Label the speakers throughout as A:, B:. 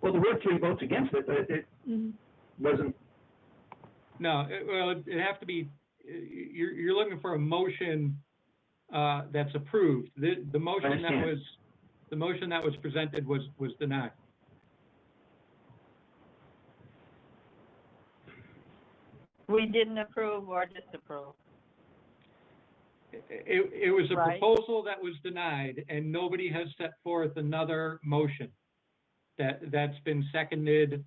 A: Well, there were three votes against it, but it- it
B: Mhm.
A: wasn't,
C: No, it- well, it'd it'd have to be, you're, you're looking for a motion uh, that's approved. The, the motion that
A: understand.
C: was, the motion that was presented was, was denied.
B: We didn't approve or disapprove.
C: It, it was a
B: Right.
C: proposal that was denied, and nobody has set forth another motion that, that's been seconded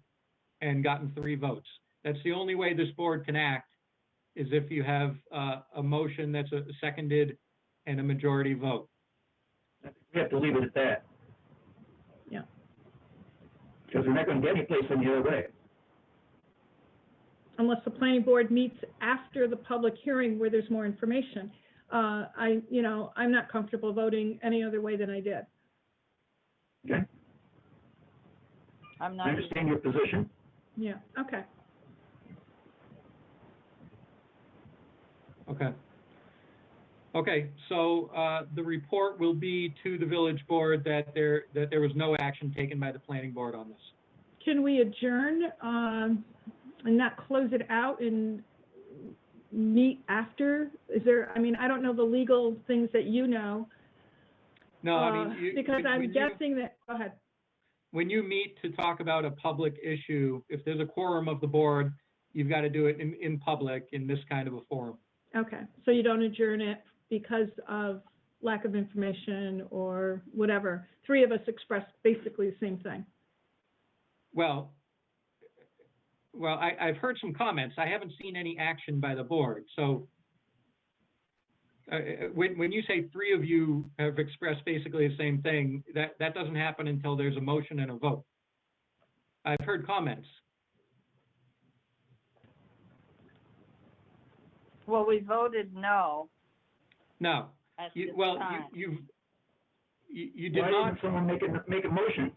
C: and gotten three votes. That's the only way this board can act, is if you have uh, a motion that's uh, seconded and a majority vote.
A: we have to leave it at that.
B: Yeah.
A: Because we're not gonna get any place any other way.
D: unless the planning board meets after the public hearing where there's more information. Uh, I, you know, I'm not comfortable voting any other way than I did.
B: I'm
A: I
B: not,
A: understand your position.
D: Yeah, okay.
C: Okay. Okay, so uh, the report will be to the village board that there, that there was no action taken by the planning board on this.
D: Can we adjourn, um, and not close it out and meet after? Is there, I mean, I don't know the legal things that you know.
C: No, I
D: uh,
C: mean, you.
D: Because
C: when
D: I'm
C: you-
D: guessing that, go ahead.
C: when you meet to talk about a public issue, if there's a quorum of the board, you've got to do it in, in public in this kind of a forum.
D: Okay, so you don't adjourn it because of lack of information or whatever. Three of us expressed basically the same thing.
C: Well, well, I, I've heard some comments. I haven't seen any action by the board, so. Uh, when, when you say three of you have expressed basically the same thing, that, that doesn't happen until there's a motion and a vote. I've heard comments.
B: well, we voted no
C: No,
B: at this
C: you, well,
B: time.
C: you, you've, you, you did
A: Why
C: not.
A: didn't someone make a, make a motion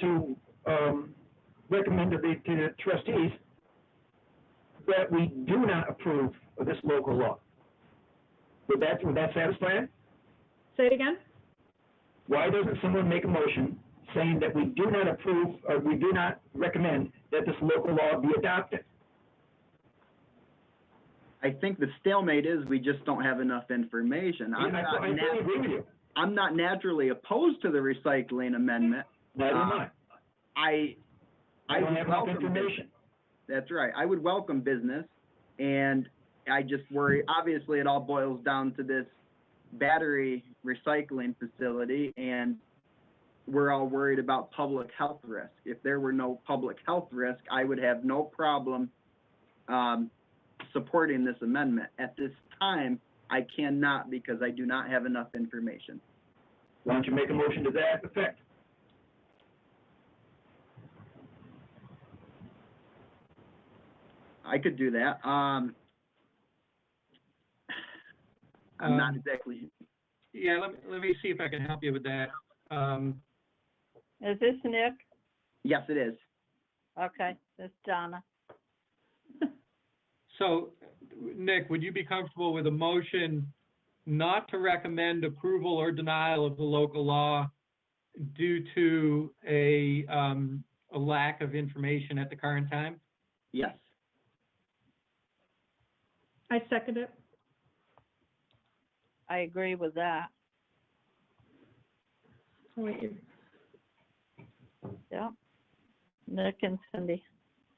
A: to, um, recommend to the, to the trustees that we do not approve of this local law? Would that, would that satisfy it?
D: Say it again?
A: why doesn't someone make a motion saying that we do not approve, or we do not recommend that this local law be adopted?
E: I think the stalemate is we just don't have enough information. I'm
A: And I-
E: not,
A: I
E: nat-
A: fully agree with you.
E: I'm not naturally opposed to the recycling amendment.
A: Neither am I.
E: Uh, I,
A: I
E: I
A: don't
E: would
A: have enough
E: welcome,
A: information.
E: that's right, I would welcome business. And I just worry, obviously, it all boils down to this battery recycling facility and we're all worried about public health risk. If there were no public health risk, I would have no problem um, supporting this amendment. At this time, I cannot because I do not have enough information.
A: Why don't you make a motion to that effect?
E: I could do that. Um, I'm not exactly,
C: Yeah, let, me- let me see if I can help you with that. Um,
B: Is this Nick?
E: yes, it is.
B: Okay, this Donna.
C: So, Nick, would you be comfortable with a motion not to recommend approval or denial of the local law due to a, um, a lack of information at the current time?
E: Yes.
D: I second it.
B: I agree with that.
D: I'll let you-
B: Yep. Nick and Cindy.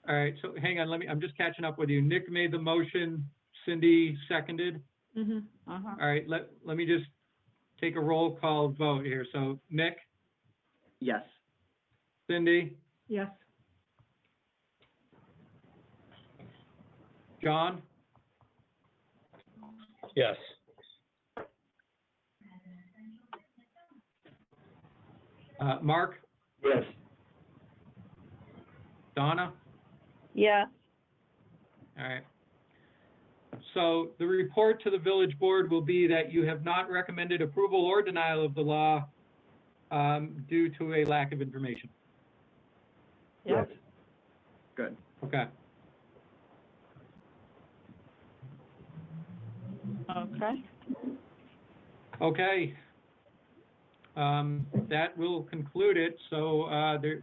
C: All right, so hang on, let me, I'm just catching up with you. Nick made the motion, Cindy seconded.
D: mhm.
B: Uh-huh.
C: All right, let, let me just take a roll call vote here. So Nick,
E: Yes.
C: Cindy,
D: Yes,
C: John?
F: Yes.
C: Uh, Mark,
A: Yes.
C: Donna?
B: Yeah,
C: All right. So the report to the village board will be that you have not recommended approval or denial of the law um, due to a lack of information.
B: Yep.
A: Yes.
E: Good.
C: Okay.
B: okay.
C: Okay. Um, That will conclude it. So uh, there,